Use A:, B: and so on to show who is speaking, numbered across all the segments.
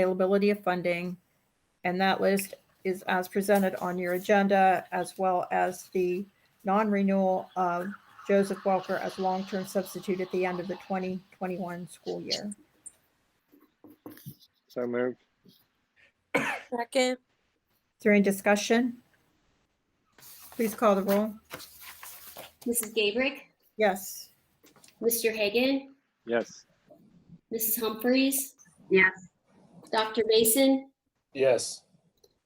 A: availability of funding. And that list is as presented on your agenda, as well as the non-renewal of Joseph Welker as long-term substitute at the end of the 2021 school year.
B: So moved.
C: Second,
A: Is there any discussion? Please call the roll.
D: Mrs. Gabrick,
A: Yes.
D: Mr. Hagan,
B: Yes.
D: Mrs. Humphries,
E: Yes,
D: Dr. Mason,
F: Yes,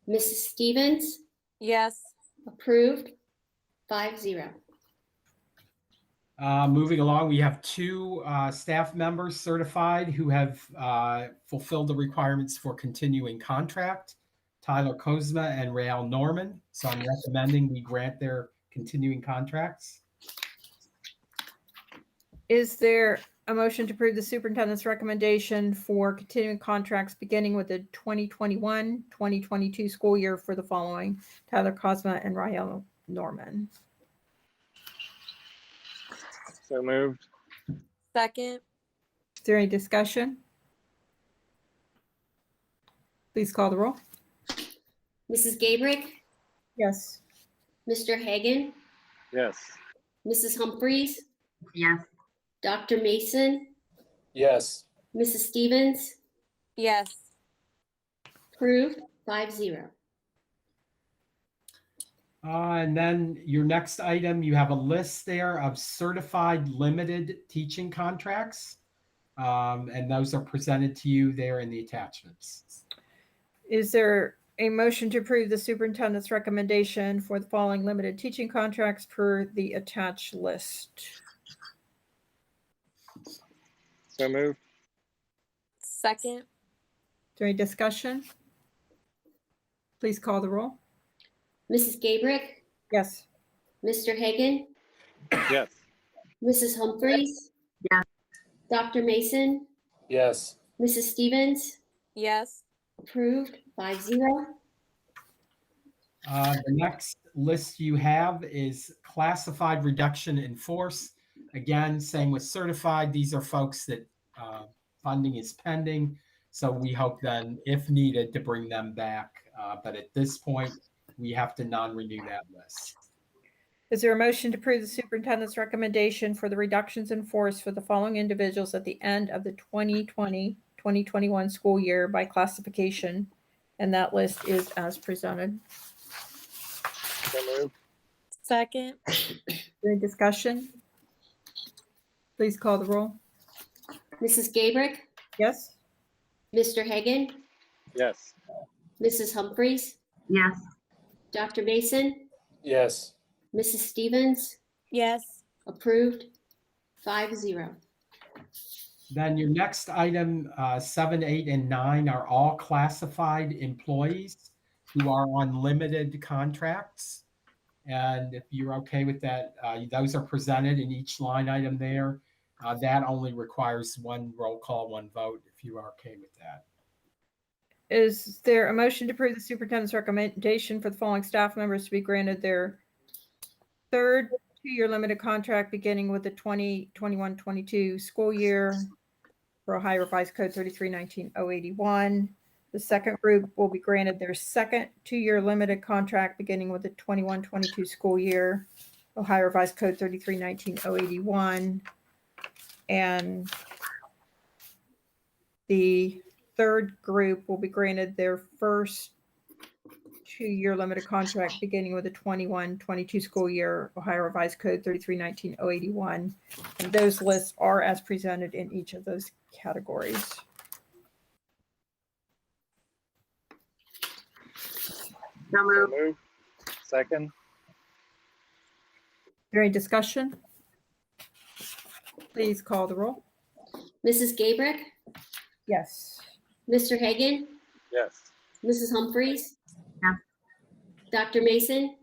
D: Mrs. Stevens,
C: yes,
D: approved, five zero.
G: Uh, moving along, we have two uh, staff members certified who have uh, fulfilled the requirements for continuing contract Tyler Kozma and Rael Norman. So I'm recommending we grant their continuing contracts.
A: Is there a motion to approve the superintendent's recommendation for continuing contracts beginning with the 2021, 2022 school year for the following Tyler Cosma and Rael Norman?
B: So moved.
C: second,
A: Is there any discussion? Please call the roll.
D: Mrs. Gabrick,
A: Yes.
D: Mr. Hagan,
B: Yes.
D: Mrs. Humphries,
E: yes,
D: Dr. Mason,
F: yes,
D: Mrs. Stevens,
C: yes,
D: approved, five zero.
G: Uh, and then your next item, you have a list there of certified limited teaching contracts. Um, and those are presented to you there in the attachments.
A: Is there a motion to approve the superintendent's recommendation for the following limited teaching contracts per the attached list?
B: So moved.
C: second,
A: Is there any discussion? Please call the roll.
D: Mrs. Gabrick,
A: Yes.
D: Mr. Hagan,
B: Yes.
D: Mrs. Humphries,
E: Yes.
D: Dr. Mason,
F: yes,
D: Mrs. Stevens,
C: yes,
D: approved, five zero.
G: Uh, The next list you have is classified reduction in force. Again, same with certified, these are folks that uh, funding is pending. So we hope then, if needed, to bring them back. Uh, But at this point, we have to non-renew that list.
A: Is there a motion to approve the superintendent's recommendation for the reductions in force for the following individuals at the end of the 2020, 2021 school year by classification? And that list is as presented.
B: So moved.
C: second,
A: Any discussion? Please call the roll.
D: Mrs. Gabrick,
A: Yes?
D: Mr. Hagan,
B: Yes.
D: Mrs. Humphries,
E: yes,
D: Dr. Mason,
F: yes,
D: Mrs. Stevens,
C: yes,
D: approved, five zero.
G: Then your next item, uh, seven, eight, and nine are all classified employees who are on limited contracts. And if you're okay with that, uh, those are presented in each line item there. Uh, That only requires one roll call, one vote, if you are okay with that.
A: Is there a motion to approve the superintendent's recommendation for the following staff members to be granted their third two-year limited contract beginning with the 2021-22 school year for Ohio Revised Code 3319-081? The second group will be granted their second two-year limited contract beginning with the 21-22 school year, Ohio Revised Code 3319-081. And the third group will be granted their first two-year limited contract beginning with the 21-22 school year, Ohio Revised Code 3319-081. And those lists are as presented in each of those categories.
E: so
B: So
E: moved,
B: moved. Second.
A: Is there Any discussion? Please call the roll.
D: Mrs. Gabrick,
A: Yes.
D: Mr. Hagan,
B: Yes.
D: Mrs. Humphries,
E: Yeah.
D: Dr. Mason,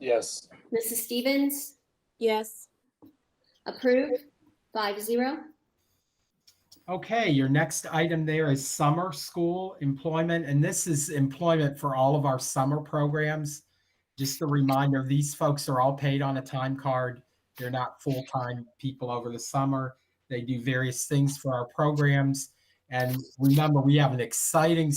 F: yes,
D: Mrs. Stevens,
C: yes,
D: approved, five zero.
G: Okay, your next item there is summer school employment, and this is employment for all of our summer programs. Just a reminder, these folks are all paid on a time card. They're not full-time people over the summer. They do various things for our programs. And remember, we have an exciting